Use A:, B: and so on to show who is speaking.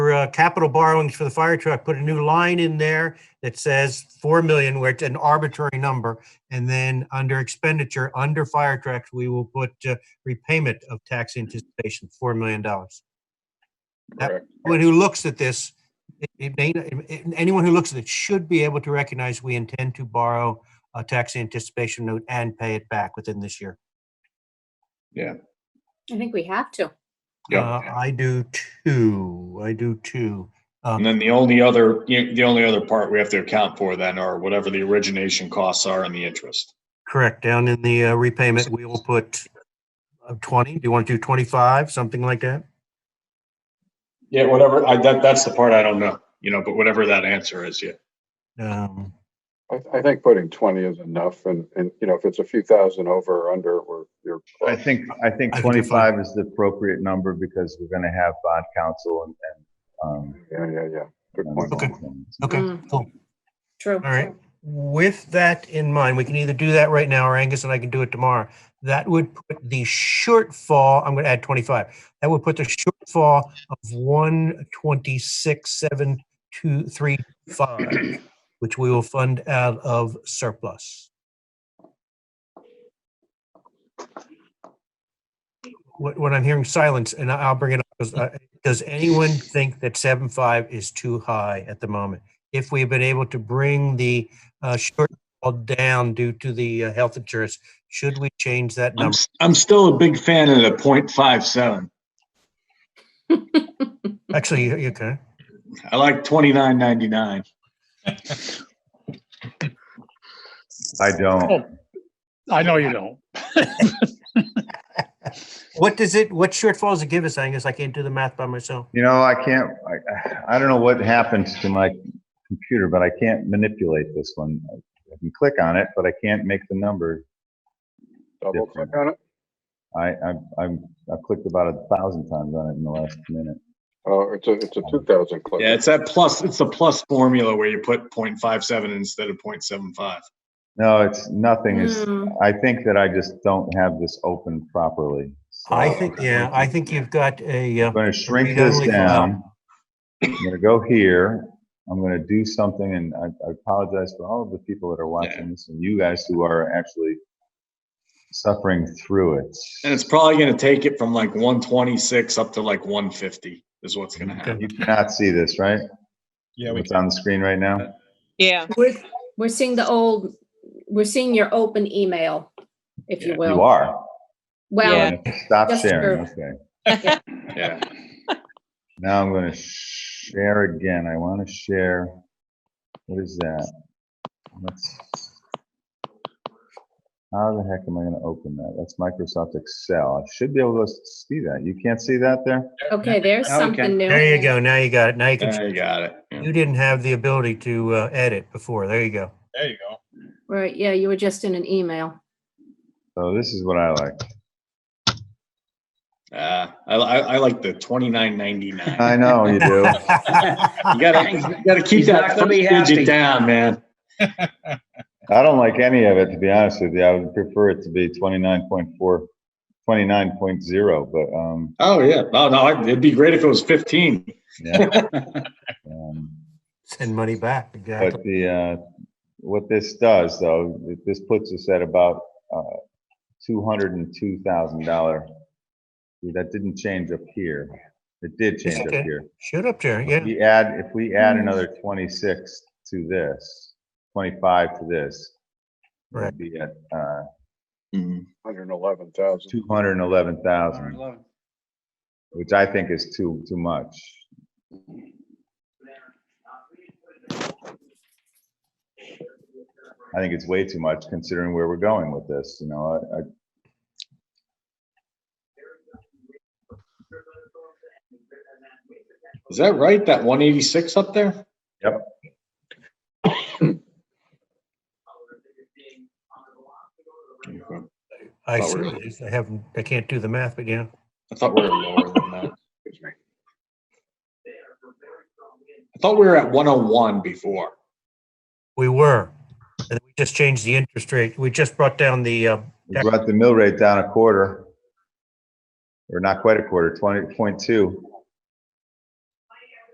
A: for uh, capital borrowings for the fire truck, put a new line in there that says 4 million, where it's an arbitrary number. And then under expenditure, under fire trucks, we will put uh, repayment of tax anticipation, $4 million. Yep.
B: correct?
A: Anyone who looks at this, it- it may, not- it- anyone who looks at it should be able to recognize we intend to borrow a tax anticipation note and pay it back within this year.
C: I think we have to.
A: Uh,
B: Yeah.
A: I do too. I do too. Um,
B: And then the only other, the only other part we have to account for then are whatever the origination costs are and the interest.
A: Correct. Down in the uh, repayment, we will put uh, 20. Do you want to do 25, something like that?
B: Yeah, whatever, I, that, that's the part I don't know, you know, but whatever that answer is, yeah.
A: Um,
D: I, th- I think putting twenty is enough and, and, you know, if it's a few thousand over or under, we're, you're.
E: I think, I
A: I think it's
E: think
A: fine.
E: twenty-five is the appropriate number because we're gonna have bond council and, and, um.
D: Yeah, yeah, yeah. Good
E: and
D: point.
A: Okay.
E: things.
A: Okay,
C: Mm.
A: cool.
C: True.
A: All right. With that in mind, we can either do that right now or Angus and I can do it tomorrow. That would put the shortfall, I'm going to add 25. That would put the shortfall of 126,723.5, which we will fund out of surplus. What, what I'm hearing silence, and I- I'll bring it up, 'cause, uh, does anyone think that 7.5 is too high at the moment? if we've been able to bring the uh, shortfall down due to the uh, health insurance, should we change that
B: I'm,
A: number?
B: s- I'm still a big fan of the point five seven.
A: Actually, you- you can.
B: I like twenty-nine ninety-nine.
E: I don't,
F: I know you don't.
A: What does it, what shortfall does it give us, Angus? I can't do the math by myself.
E: you know, I can't, I, I don't know what happens to my computer, but I can't manipulate this one. I can click on it, but I can't make the number.
D: Double click on it.
E: I, I, I'm, I've clicked about a thousand times on it in the last minute.
D: Oh, it's a, it's a two thousand click.
B: Yeah, it's that plus, it's the plus formula where you put point five seven instead of point seven five.
E: No, it's, nothing is,
C: Mm.
E: I think that I just don't have this open properly. so-
A: I think, yeah, I think you've got a, uh,
E: I'm gonna
A: we don't
E: shrink this
A: leave it out.
E: down. I'm gonna go here. I'm gonna do something and I I apologize for all of the people that are watching this and you guys who are actually suffering through it.
B: And it's probably gonna take it from like one twenty-six up to like one fifty is what's gonna happen.
E: You cannot see this, right?
B: Yeah,
E: It's on the screen right now?
G: Yeah,
C: We're, we're seeing the old, we're seeing your open email, if you
B: Yeah,
C: will.
E: You are.
C: Well,
E: Stop
C: Yes,
E: sharing,
C: sir.
E: okay.
B: Yeah.
E: Now I'm gonna share again. I wanna share. What is that? Let's. How the heck am I gonna open that? That's Microsoft Excel. I should be able to see that. You can't see that there?
C: okay, there's
F: Now we can-
C: something new.
A: there you go. Now you got it. Now you
B: Yeah,
A: can,
B: you got it. Yeah.
A: you didn't have the ability to uh, edit before. There you go.
F: There you go.
C: Right, yeah, you were just in an email.
E: So Oh, this is what I like.
B: Uh, I, I, I like the twenty-nine ninety-nine.
E: I know you do.
B: You gotta, you gotta keep
F: He's
B: that
F: not gonna
B: first
F: be happy.
B: digit down, man.
E: I don't like any of it, to be honest with you. I would prefer it to be 29.4, 29.0, but, um,
B: Oh, yeah. No, no, I- it'd be great if it was fifteen.
E: yeah. Um,
A: Send money back. Exactly.
E: But the, uh, what this does though, it- this puts us at about, uh, two hundred and two thousand dollar. That didn't change up here. It did change up
A: okay.
E: here.
A: Shoot up there.
E: If
A: Yeah. Mm-hmm.
E: we add, if we add another twenty-six to this, twenty-five to this. it would
A: Right.
E: Be at, uh,
B: Hmm.
D: Hundred and eleven thousand.
E: two hundred and eleven thousand, which I think is too, too much. I think it's way too much considering where we're going with this, you know, I, I.
B: Is that right? That one eighty-six up there?
E: Yep.
B: Okay.
A: I
B: Oh,
A: see
B: really?
A: it is. I haven't, I can't do the math, but yeah.
B: I thought we were lower than that. I thought we were at one oh one before.
A: We were. And we just changed the interest rate. We just brought down the, uh,
E: We brought the mill rate down a quarter. Or not quite a quarter, twenty point two.